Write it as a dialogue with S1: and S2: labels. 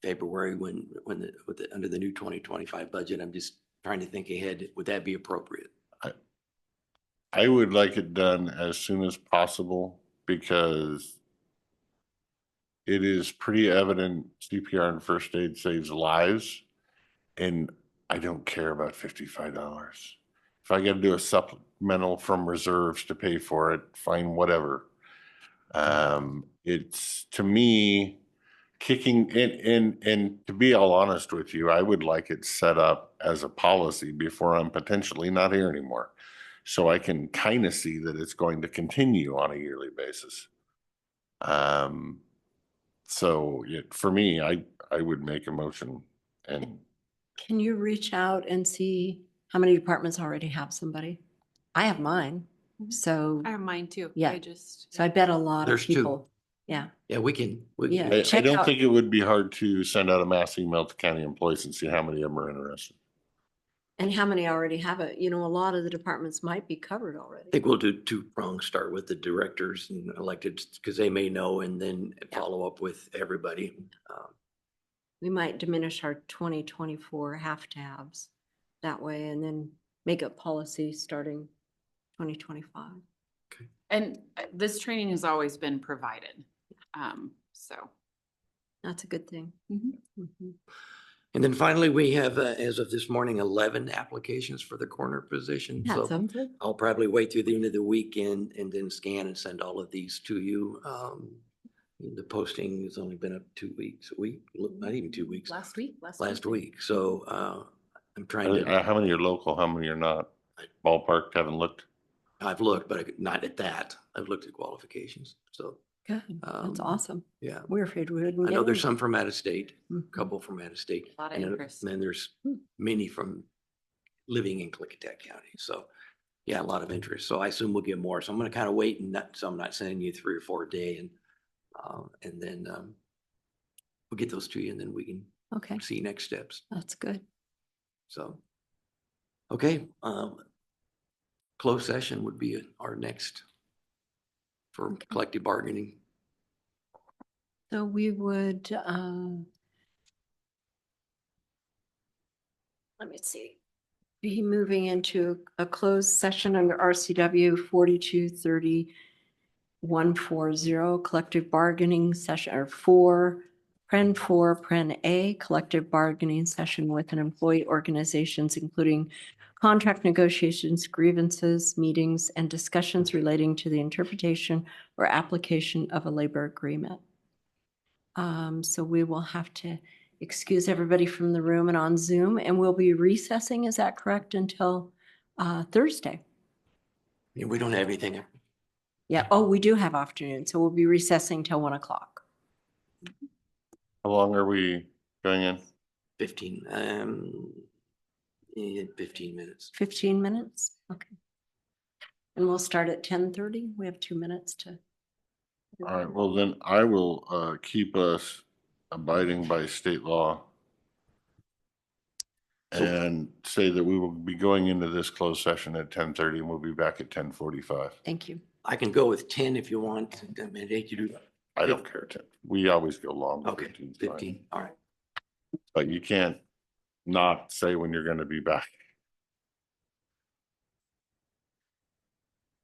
S1: February when, when the, with the, under the new twenty twenty-five budget. I'm just trying to think ahead. Would that be appropriate?
S2: I would like it done as soon as possible because it is pretty evident CPR and first aid saves lives. And I don't care about fifty-five dollars. If I gotta do a supplemental from reserves to pay for it, fine, whatever. Um, it's to me kicking and and and to be all honest with you, I would like it set up as a policy before I'm potentially not here anymore. So I can kind of see that it's going to continue on a yearly basis. Um, so it, for me, I, I would make a motion and
S3: Can you reach out and see how many departments already have somebody? I have mine,
S4: Mhm.
S3: so,
S4: I have mine too.
S3: Yeah.
S4: I just.
S3: so I bet a lot of
S1: There's two.
S3: people. Yeah,
S1: Yeah, we can. we-
S3: Yeah.
S2: I, I
S3: check
S2: don't
S3: out-
S2: think it would be hard to send out a mass email to county employees and see how many of them are interested.
S3: and how many already have it? You know, a lot of the departments might be covered already.
S1: I think we'll do two prongs, start with the directors and elected, because they may know, and then follow up with everybody. Um,
S3: We might diminish our twenty twenty-four half tabs that way and then make up policy starting twenty twenty-five.
S4: And uh, this training has always been provided. Um, so.
S3: That's a good thing.
S4: Mhm.
S3: Mhm.
S1: And then finally, we have, uh, as of this morning, eleven applications for the coroner position.
S3: Yeah,
S1: So
S3: something.
S1: I'll probably wait through the end of the weekend and then scan and send all of these to you. Um, the posting has only been up two weeks, a week, look, not even two weeks,
S4: Last week, last.
S1: last week. So, uh, I'm trying
S2: Uh,
S1: to,
S2: How many are local? How many are not? Ballpark, haven't looked.
S1: I've looked, but I- not at that. I've looked at qualifications. So,
S3: Good. That's
S1: Um,
S3: awesome.
S1: yeah.
S3: We're afraid we wouldn't.
S1: I
S3: get
S1: know there's
S3: any.
S1: some from out of state,
S3: Mhm.
S1: a couple from out of state.
S4: Lot of
S1: and then-
S4: interest. Hmm.
S1: Then there's many from living in Clickitat County. So, yeah, a lot of interest. So I assume we'll get more. So I'm gonna kind of wait and not, so I'm not sending you three or four a day and, um, and then, um, we'll get those to you and then we can
S3: Okay,
S1: see next steps.
S3: that's good.
S1: So, okay, um, closed session would be our next for collective bargaining.
S3: So we would, um, let me see, be moving into a closed session under RCW forty-two thirty one four zero collective bargaining session or four, pren four, pren A, collective bargaining session with an employee organizations, including contract negotiations, grievances, meetings, and discussions relating to the interpretation or application of a labor agreement. Um, so we will have to excuse everybody from the room and on Zoom, and we'll be recessing, is that correct, until uh, Thursday?
S1: Yeah, We don't have anything.
S3: Yeah, oh, we do have afternoon, so we'll be recessing till one o'clock.
S2: How long are we going in?
S1: Fifteen, um, eh, fifteen minutes.
S3: Fifteen minutes, okay. And we'll start at ten thirty, we have two minutes to.
S2: All right, well then I will, uh, keep us abiding by state law.
S1: So-
S2: And say that we will be going into this closed session at ten thirty and we'll be back at ten forty-five.
S3: Thank you.
S1: I can go with ten if you want. I mean, they could do
S2: I don't care, Tim. We always go long.
S1: Okay,
S2: 15 's fine.
S1: fifteen, all right.
S2: But you can't not say when you're gonna be back.